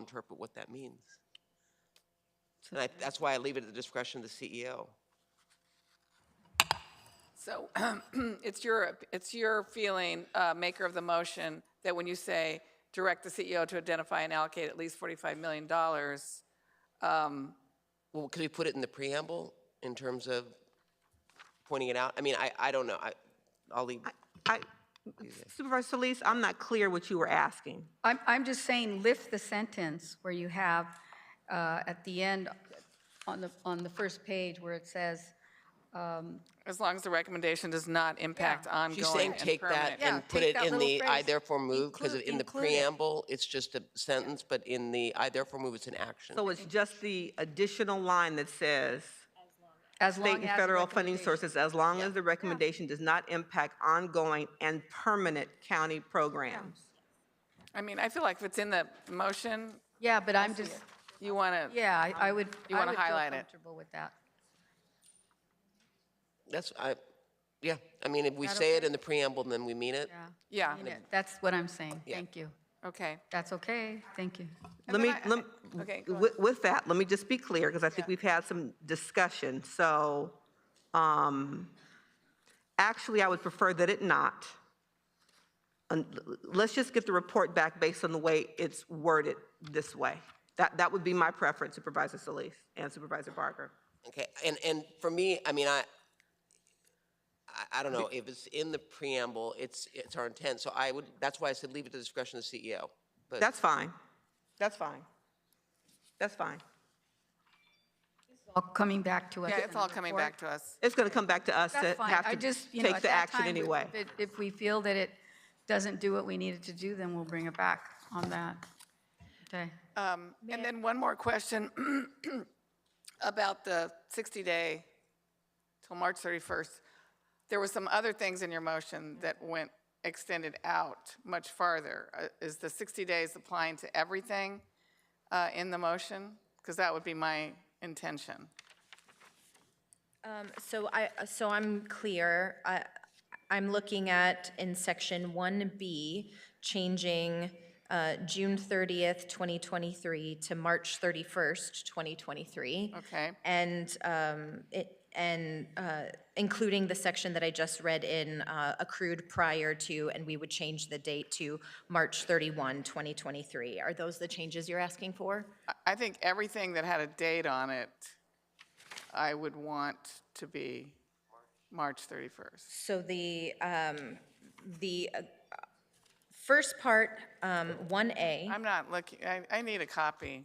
interpret what that means. And I, that's why I leave it at the discretion of the E CEO. So it's your, it's your feeling, uh, maker of the motion, that when you say, direct the CEO to identify and allocate at least $45 million, um, Well, could we put it in the preamble in terms of pointing it out? I mean, I, I don't know. I, I'll leave. I- Supervisor Solis, I'm not clear what you were asking. I'm, I'm just saying lift the sentence where you have, uh, at the end, on the, on the first page where it says, as long as the recommendation does not impact ongoing She's saying and take that permanent. Yeah, and put take it that in little the I phrase. therefore move, because Include- in the include it. preamble, it's just a sentence, but in the I therefore move, it's an action. So it's just the additional line that says, as long as. state and the federal funding recommendation- sources, as long as the recommendation does not impact ongoing and permanent county programs. I mean, I feel like if it's in the motion, Yeah, but I'm just, you want to, yeah, I- I would, You I wanna would highlight feel it. comfortable with that. That's, I, yeah, I mean, if we say it in the preamble, then we mean it. Yeah. yeah, I mean, it- That's what I'm saying. Thank you. okay. That's okay. Thank you. Let me, then I- lem- okay, go with, with that, let me just be clear, because I think we've had some discussion. So, um, actually, I would prefer that it not. And l- l- let's just get the report back based on the way it's worded this way. That, that would be my preference, Supervisor Solis and Supervisor Barker. Okay, and, and for me, I mean, I, I- I don't know, if it's in the preamble, it's, it's our intent, so I would, that's why I said leave it to the discretion of the CEO. But That's fine. That's fine. That's fine. All coming back to us. Yeah, in it's the all coming report. back to us. It's going to come back to us to That's fine. have I to just, you know, take at the that action time, we- anyway. if- If we feel that it doesn't do what we needed to do, then we'll bring it back on that. Okay. Uh, Um, And then one more question about the 60-day till March 31st. There were some other things in your motion that went, extended out much farther. Uh, Is the 60 days applying to everything uh, in the motion? Because that would be my intention. Um, So I, so I'm clear. I, I'm looking at in section 1B, changing uh, June 30th, 2023 to March 31st, 2023. Okay. And, um, it- and uh, including the section that I just read in uh, accrued prior to, and we would change the date to March 31, 2023. Are those the changes you're asking for? I- I think everything that had a date on it, I would want to be March 31st. So the, um, the uh, first part, um, 1A, I'm not looking, I, I need a copy.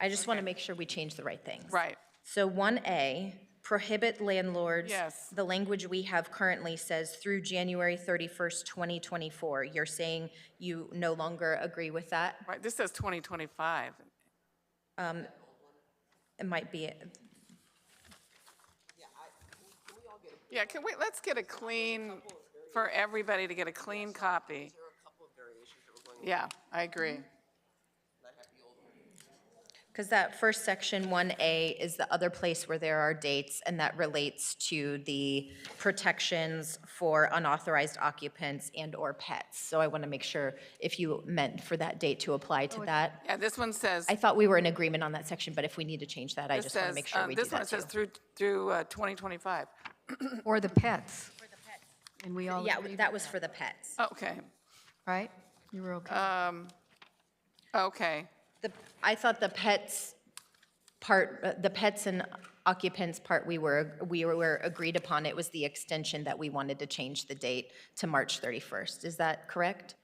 I just want to make sure we change the right things. Right. So 1A, prohibit landlords. Yes. The language we have currently says through January 31st, 2024. You're saying you no longer agree with that? Right, this says 2025. It might be, Yeah, can we, let's get a clean, for everybody to get a clean copy. Yeah, I agree. because that first section, 1A, is the other place where there are dates, and that relates to the protections for unauthorized occupants and/or pets. So I want to make sure if you meant for that date to apply Oh, to that. Yeah, this one says, I thought we were in agreement on that section, but if we need to change that, I this just want to says, make sure uh, we do this one that says too. through, through uh, 2025. Or the pets. And we all Yeah, agreed that with was for the pets. Okay, um, Right? You were Uh, okay. okay. The, I thought the pets part, uh, the pets and occupants part, we were, we were agreed upon. It was the extension that we wanted to change the date to March 31st. Is that correct?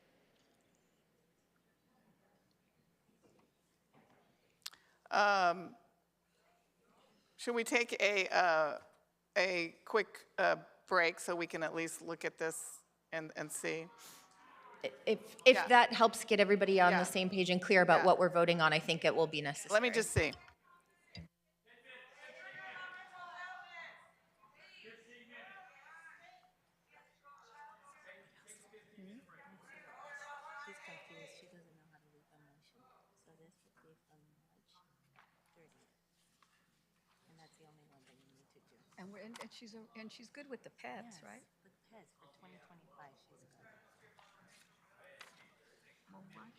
Should we take a, uh, a quick uh, break so we can at least look at this and, and see? If, if Yeah. that helps get everybody on Yeah. the same page and clear about Yeah. what we're voting on, I think it will be necessary. Let me just see. She's confused. She doesn't know how to read the motion. So this would be from March thirtieth. And that's the only one that you need to do. And we're, and she's, and she's good with the pets, right? With Pez for twenty twenty-five, she's gonna. March